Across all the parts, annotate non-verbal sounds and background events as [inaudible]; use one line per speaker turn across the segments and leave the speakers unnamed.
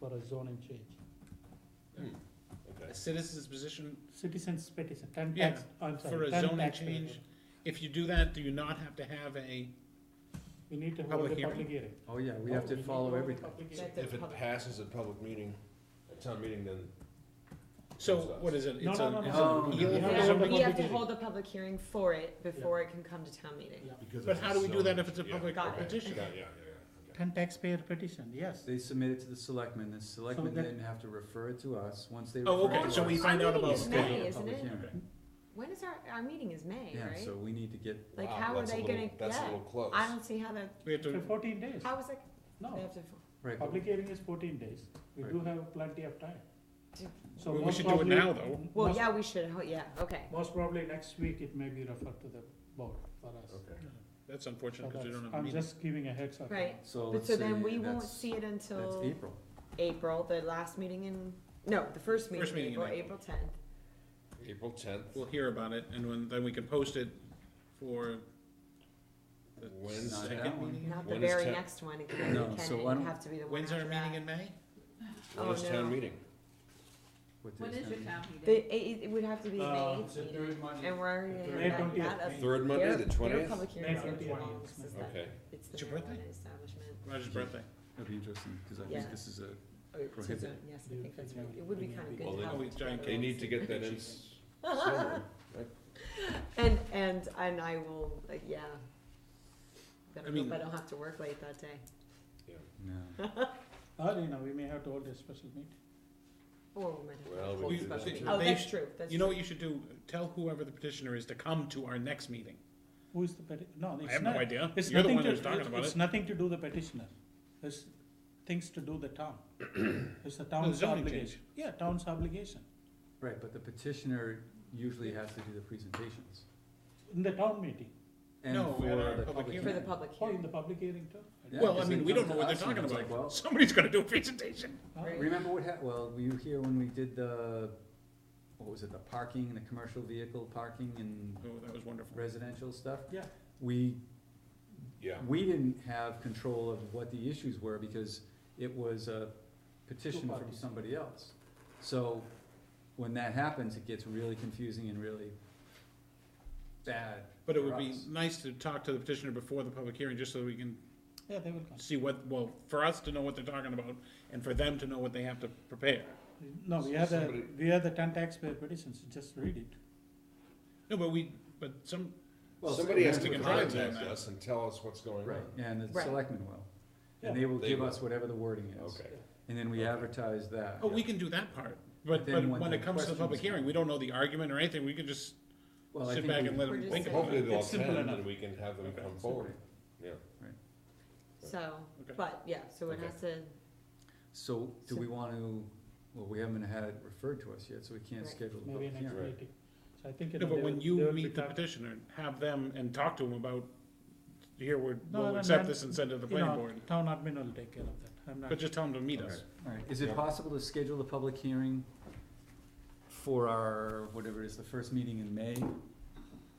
for a zoning change.
Okay.
A citizen's position,
Citizens petition, ten
Yeah,
tax, I'm
for
sorry,
a
ten
zoning
taxpayer.
change, if you do that, do you not have to have a,
We need to hold
public
a
hearing.
public hearing.
Oh, yeah, we have
Oh,
to
need
follow
hold a
everything.
public
That's
hearing.
If it passes at public meeting, at town meeting, then
so
What's
what is it?
No,
It's
no,
a-
no,
it's
no.
an
Oh.
eel
You
or
have to
something?
public
We have to
hearing.
hold a public hearing for it before it can come to town meeting.
Yeah.
because.
But
it's
how do we do that
zoning.
if it's a
Yeah,
public
Got it.
petition?
Yeah, yeah, yeah, yeah, okay.
Ten taxpayer petition, yes.
They submit it to the selectmen, the selectmen
that-
then have to refer it to us, once they
Oh,
refer it to
okay,
us.
so we find out
meeting
about.
is
schedule
May,
a
isn't
public
it?
hearing.
When is our, our meeting is May,
Yeah,
right?
so we need to get,
Like,
Wow,
how are
that's a
they
little-
gonna,
That's a
yeah,
little close.
I don't see how the,
We have
For
to,
fourteen days,
how is it, they
no,
have to,
right, but
public hearing is fourteen days, we
Right.
do have plenty of time.
Do-
So
Well, we
most
should do it
probably-
now, though.
well,
most-
yeah, we should, ho- yeah, okay.
Most probably next week it may be referred to the board for us.
Okay.
that's
So
unfortunate because we
that's-
don't have a
I'm
meeting.
just giving a heads up.
Right.
so
But
let's
so
say
then we won't
that's,
see it
that's
until
April,
April, the last meeting in, no, the first meeting
First
in
meeting in
April, April tenth.
April tenth,
Oh,
We'll hear about it and when, then we can post it for the
When's
not
Second
that one.
Not the
When is
very
ten-
next one, it can,
No,
it
so
can, it
why
would
don't-
have to be the one
When's
after
our
that.
meeting in May?
when
Oh,
is town
no.
meeting?
what
When
day
is
is
your
that?
town meeting?
The, it, it would have to be
Uh,
May eighth meeting, and we're already
May
gonna have that,
20th.
that up.
Third Monday, the
Their
twentieth?
public hearings aren't too
20th.
long, this is the-
Okay,
it's the
It's your birthday?
marijuana establishment.
Roger's birthday.
It'll be interesting, cause I
Yeah.
think this is a,
Oh, it's just a-
Prohibited.
Yes,
Do
I
you
think that's,
think
right.
that
it would be
would
kinda
be-
good
Well,
to
they-
have.
Oh,
it
giant
together
they
cake.
and
need to
see.
get that in
[laughs]
somewhere, right?
And, and, and I will, like, yeah. But
I
I
mean-
hope I don't have to work late that day. [laughs]
no,
Or, you know, we may have to hold a special meeting.
Or Oh, we might have to
Well, we
close
do
the
that
meeting.
too.
Oh,
They
that's
sh-
true, that's
You know
true.
what you should do? Tell whoever the petitioner is to come to our next meeting.
Who is the peti, no,
I
it's
have no
not,
idea.
it's
You're the
nothing
one
to,
who's talking about
it's
it.
nothing to do the petitioner. It's things to do the
[clears throat]
town. It's the town's
zoning change.
obligation. Yeah, town's obligation.
right, but the petitioner usually has to do the presentations.
In the town meeting,
And
No, at
for
our
the
public
public
hearing.
For the
hearing.
public
or in the
hearing.
public hearing too. I
Yeah,
don't-
Well, I
because
mean,
they
we
come
don't know
to
what they're
us and
talking
it's like, well,
about. Somebody's gonna do a presentation.
Huh?
Right.
Remember what hap, well, were you here when we did the, what was it, the parking, the commercial vehicle parking and
Oh, that was wonderful.
residential stuff?
Yeah.
We,
Yeah,
we didn't have control of what the issues were because it was a petition from
parties.
somebody else. So when that happens, it gets really confusing and really bad.
But it
for
would be
us.
nice to talk to the petitioner before the public hearing, just so we can
Yeah, they will come.
see what, well, for us to know what they're talking about and for them to know what they have to prepare.
No, we have the,
Somebody-
we have the ten taxpayer petitions, just read it.
No, but we, but some,
Well,
somebody has
we
to
can
contact
drive them.
us and tell us what's going
Right,
on.
and the
Right.
selectmen will. And
Yeah.
they will
They
give
will.
us whatever the wording is.
Okay,
And then we
Okay.
advertise that.
oh, we can do that part.
But
But,
then
but
when
when
the
it comes to the public
questions-
hearing, we don't know the argument or anything. We can just
Well, I
sit
think
back
we-
and let
We're
them
just
think
saying-
about
hopefully
it.
they'll
It's simple
attend and
enough.
we can have them
Okay.
come forward, yeah.
So,
Okay.
but, yeah, so it
Okay.
has to,
So, do
So-
we wanna, well, we haven't had it referred to us yet, so we can't
Right.
schedule the
Maybe
public
next
hearing.
meeting. So I think.
No,
know,
but
they
when
will- they
you
will be
meet the
talk-
petitioner, have them and talk to them about, here, we're,
No,
we'll
no,
accept
no,
this and send it to the
you know,
planning board.
Town admin will take care of that, I'm not.
But just tell them to meet us.
Alright, is it possible to schedule the public hearing for our, whatever it is, the first meeting in May?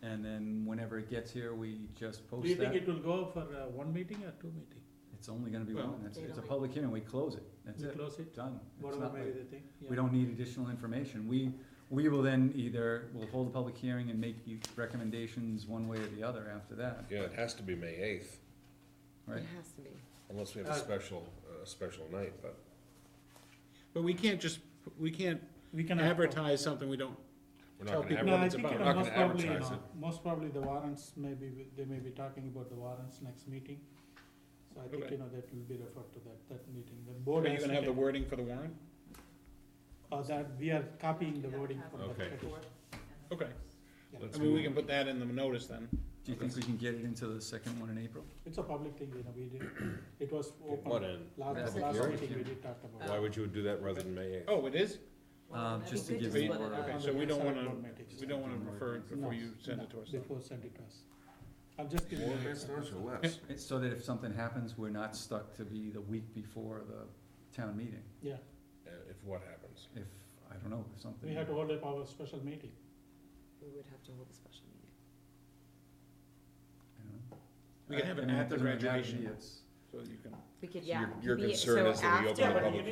And then whenever it gets here, we just
Do you
post
think
that?
it will go for uh, one meeting or two meeting?
It's only gonna be
Well-
one, it's,
They
it's a
don't-
public hearing, we close it, that's
We
it,
close it,
done. It's
whatever
not
may
like-
be the thing. yeah.
We don't need additional information, we, we will then either, we'll hold a public hearing and make you recommendations one way or the other after that,
Yeah, it has to be May eighth,
right?
it has to be.
unless we have
Uh,
a special, uh special night, but.
But we can't just, we can't
We can. have-
advertise something we don't
We're
Tell
not gonna
people-
have
No,
what
I
it's
think, you
about.
know,
Not
most
gonna
probably, you
advertise
know, most probably the warrants may be, they may be talking about the warrants next meeting. So I think,
Okay.
you know, that will be referred to that, that meeting, the board.
Are you
has
gonna have the
taken-
wording for the warrant?
Uh, that, we are copying the wording from the.
Okay.
petition.
Okay.
Yeah.
Let's
I mean, we
move
can put that in the notice then.
Do you think we can get it into the second one in April?
It's a public thing, you know, we
[clears throat]
did, it was
Get What
open,
in?
last,
Public
last
hearing?
meeting we did talk about. it.
Why would you do that rather than May eighth?
Oh, it is?
Um, just to
It'd be
give
good
you
split it
more-
up.
Okay,
On
so
the
we don't
select
wanna-
board meetings.
We don't wanna refer it before
No,
you send it to us.
Before send it to us. I'm just giving.
More
you-
listeners or less?
It's So that if something happens, we're not stuck to be the week before the town meeting,
Yeah,
Uh, If what happens?
if, I don't know, if something.
we had to hold up our special meeting.
We would have to hold a special meeting.
I don't know.
We can
I-
have
I
it
mean,
at the
doesn't matter to me,
graduation.
it's-
So you can.
We could,
So
yeah.
your- your
be-
concern
so
is that we open
after-
the public